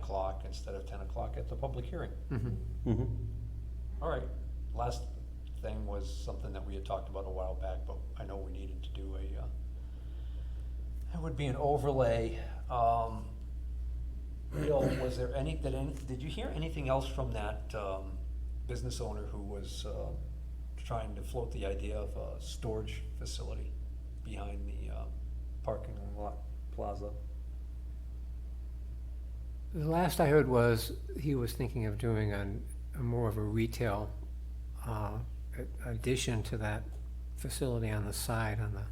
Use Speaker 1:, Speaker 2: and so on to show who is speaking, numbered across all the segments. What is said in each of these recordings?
Speaker 1: o'clock instead of ten o'clock at the public hearing.
Speaker 2: Hmm. Mm-hmm.
Speaker 3: Mhm.
Speaker 1: All right, last thing was something that we had talked about a while back, but I know we needed to do a, uh, it would be an overlay, um, Bill, was there any, did any, did you hear anything else from that, um, business owner who was, uh, trying to float the idea of a storage facility behind the, uh, parking lot plaza?
Speaker 2: The last I heard was he was thinking of doing an, a more of a retail uh, a- addition to that facility on the side, on the,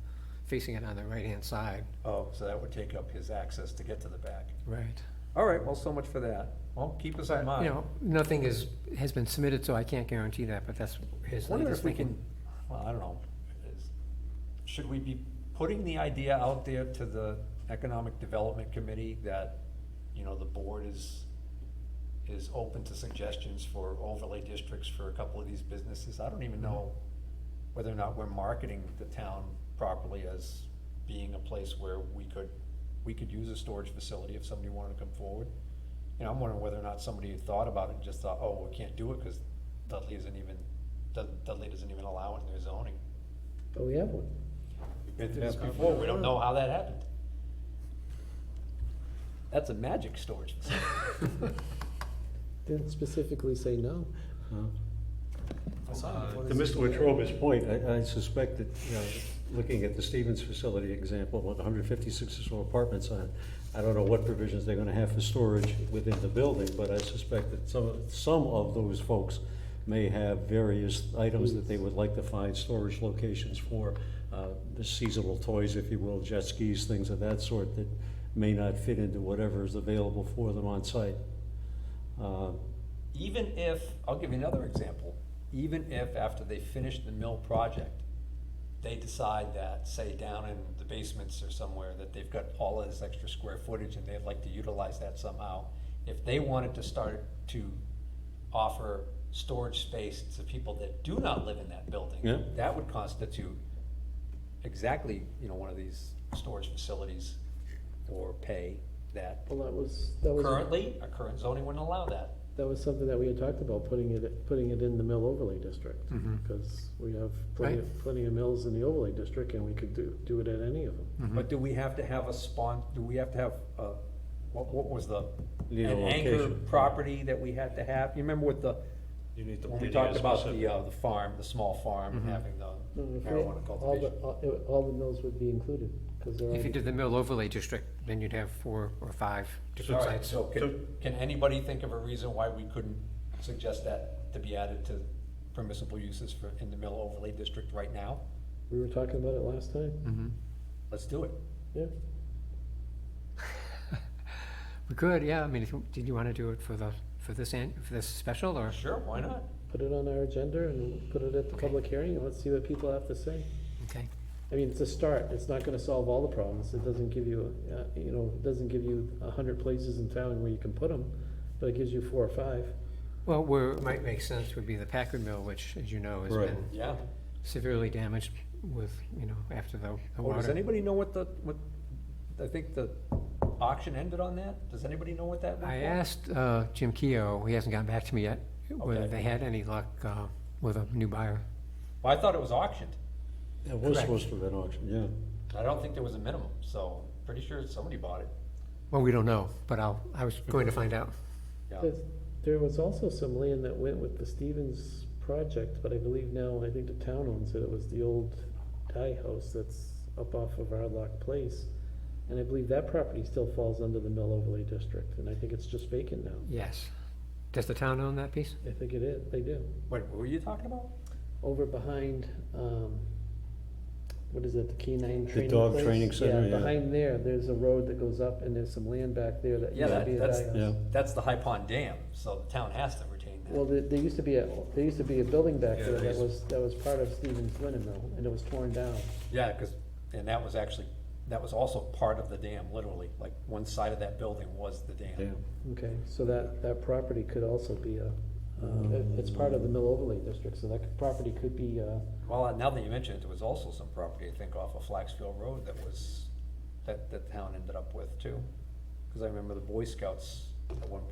Speaker 2: facing it on the right-hand side.
Speaker 1: Oh, so that would take up his access to get to the back.
Speaker 2: Right.
Speaker 1: All right, well, so much for that. Well, keep us in
Speaker 2: You
Speaker 1: mind.
Speaker 2: know, nothing is, has been submitted, so I can't guarantee that, but that's his
Speaker 1: Wonder
Speaker 2: latest
Speaker 1: if we can,
Speaker 2: thinking.
Speaker 1: well, I don't know, is- should we be putting the idea out there to the Economic Development Committee that, you know, the board is, is open to suggestions for overlay districts for a couple of these businesses? I don't even know whether or not we're marketing the town properly as being a place where we could, we could use a storage facility if somebody wanted to come forward. You know, I'm wondering whether or not somebody had thought about it and just thought, oh, we can't do it because Dudley isn't even, Dud- Dudley doesn't even allow it in their zoning.
Speaker 3: But we have one.
Speaker 1: It is before, we don't know how that happened. That's a magic storage facility.
Speaker 3: Didn't specifically say no.
Speaker 4: Uh,
Speaker 5: To Mr. Wetrova's point, I, I suspect that,
Speaker 4: you know,
Speaker 5: looking at the Stevens facility example, with hundred fifty-six or so apartments on, it, I don't know what provisions they're gonna have for storage within the building, but I suspect that some, some of those folks may have various items that they would like to find storage locations for, uh, the seasonal toys, if you will, jet skis, things of that sort, that may not fit into whatever is available for them on site. Uh,
Speaker 1: Even if, I'll give you another example, even if after they finish the mill project, they decide that, say, down in the basements or somewhere, that they've got all of this extra square footage and they'd like to utilize that somehow. If they wanted to start to offer storage space to people that do not live in that building,
Speaker 5: Yeah.
Speaker 1: that would constitute exactly, you know, one of these storage facilities or pay that
Speaker 3: Well, that was, that was,
Speaker 1: currently, our current zoning wouldn't allow that.
Speaker 3: that was something that we had talked about, putting it, putting it in the mill overlay district.
Speaker 1: Mm-hmm.
Speaker 3: Because we have plenty, of- plenty of mills in the overlay district and we could do, do it at any of them.
Speaker 1: But do we have to have a spawn, do we have to have, uh, what, what was the?
Speaker 5: Need a
Speaker 1: An anchor
Speaker 5: location.
Speaker 1: property that we had to have, you remember with the,
Speaker 4: You need to.
Speaker 1: when
Speaker 4: you
Speaker 1: we
Speaker 4: need
Speaker 1: talked
Speaker 4: a
Speaker 1: about
Speaker 4: specific-
Speaker 1: the, uh, the farm, the small farm, having the
Speaker 3: No, if we-
Speaker 1: marijuana
Speaker 3: Mm-hmm. All the,
Speaker 1: cultivation?
Speaker 3: all- it- all the mills would be included, because they're,
Speaker 2: If you
Speaker 3: already-
Speaker 2: did the mill overlay district, then you'd have four or five different
Speaker 1: All right,
Speaker 2: sites.
Speaker 1: so can, can anybody think of a reason why we couldn't suggest that to be added to permissible uses for, in the mill overlay district right now?
Speaker 3: we were talking about it last time,
Speaker 2: Mm-hmm.
Speaker 1: Let's do it.
Speaker 3: yeah?
Speaker 2: We could, yeah, I mean, if you- did you want to do it for the, for this, an- for this special, or?
Speaker 1: Sure, why not?
Speaker 3: Put it on our agenda and put it at the public hearing, and let's see what people have to say.
Speaker 2: Okay,
Speaker 3: I mean, it's a start, it's not gonna solve all the problems, it doesn't give you, uh, you know, it doesn't give you a hundred places in town where you can put them, but it gives you four or five.
Speaker 2: well, where it might make sense would be the Packard Mill, which, as you know, has
Speaker 5: Right.
Speaker 2: been
Speaker 1: Yeah.
Speaker 2: severely damaged with, you know, after the, the
Speaker 1: Oh, does
Speaker 2: water.
Speaker 1: anybody know what the, what, I think the auction ended on that? Does anybody know what that went
Speaker 2: I
Speaker 1: for?
Speaker 2: asked uh, Jim Keough, he hasn't gotten back to me yet, whether
Speaker 1: Okay.
Speaker 2: they had any luck uh, with a new buyer.
Speaker 1: Well, I thought it was auctioned.
Speaker 5: It was
Speaker 2: Correct.
Speaker 5: supposed to have been auctioned, yeah.
Speaker 1: I don't think there was a minimum, so pretty sure somebody bought it.
Speaker 2: Well, we don't know, but I'll, I was going to find out.
Speaker 1: Yeah.
Speaker 3: There's- There was also some land that went with the Stevens project, but I believe now, I think the town owns it, it was the old Thai house that's up off of Hardlock Place. And I believe that property still falls under the mill overlay district, and I think it's just vacant now,
Speaker 2: Yes. Does the town own that piece?
Speaker 3: I think it is, they do.
Speaker 1: Wait, what were you talking about?
Speaker 3: over behind, um, what is it, the canine training place?
Speaker 5: dog training center, yeah.
Speaker 3: Behind there, there's a road that goes up and there's some land back there that
Speaker 1: Yeah,
Speaker 3: used to
Speaker 1: that,
Speaker 3: be a
Speaker 1: that's,
Speaker 3: dog
Speaker 5: Yeah.
Speaker 3: house.
Speaker 1: that's the High Pond Dam, so the town has to retain
Speaker 3: Well,
Speaker 1: that.
Speaker 3: there, there used to be a, there used to be a building back
Speaker 4: Yeah,
Speaker 3: there
Speaker 4: there
Speaker 3: that
Speaker 4: is.
Speaker 3: was, that was part of Stevens Linen Mill and it was torn down.
Speaker 1: Yeah, because, and that was actually, that was also part of the dam, literally, like, one side of that building was the
Speaker 5: Yeah.
Speaker 1: dam.
Speaker 3: Okay, so that, that property could also be a, uh, it- it's part of the mill overlay district, so that could- property could be, uh,
Speaker 1: Well, now that you mention it, there was also some property, I think, off of Flaxfield Road that was, that the town ended up with too. Because I remember the Boy Scouts at one